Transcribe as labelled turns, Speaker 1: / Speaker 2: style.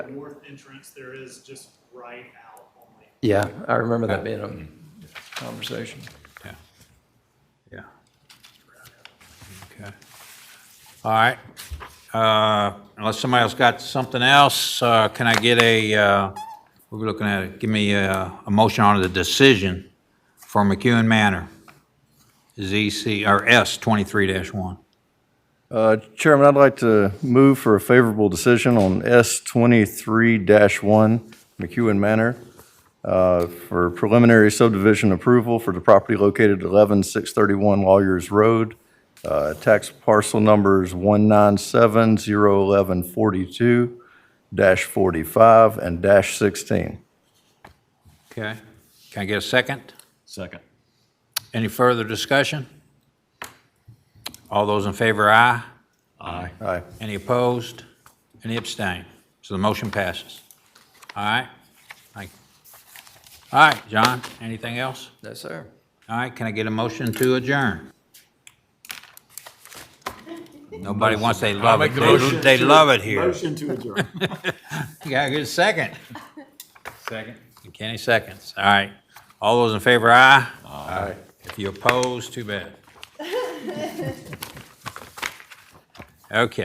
Speaker 1: north entrance, there is just right out only.
Speaker 2: Yeah, I remember that being a conversation.
Speaker 3: Yeah. Yeah. Okay. All right. Uh, Unless somebody else got something else, uh, can I get a, uh, we were looking at, it. give me uh, a motion on the decision for McEwen Manor, ZC, or S 23-1.
Speaker 4: Uh, Chairman, I'd like to move for a favorable decision on S twenty-three one McEwen Manor uh, for preliminary subdivision approval for the property located at eleven six thirty-one Lawyers Road, uh, tax parcel numbers one nine seven zero eleven forty-two dash forty-five and dash sixteen.
Speaker 3: Okay. Can I get a second?
Speaker 5: Second.
Speaker 3: Any further discussion? All those in favor, aye.
Speaker 5: Aye.
Speaker 4: Aye.
Speaker 3: Any opposed? Any abstain? So the motion passes. All right? Thank you. All right, John, anything else?
Speaker 2: Yes, sir.
Speaker 3: All right, can I get a motion to adjourn? Nobody wants, they love it. They- They love it here.
Speaker 5: Motion to adjourn.
Speaker 3: You got a good second. Second. Kenny seconds. All right. All those in favor, aye? Aye. If you oppose, too bad. Okay.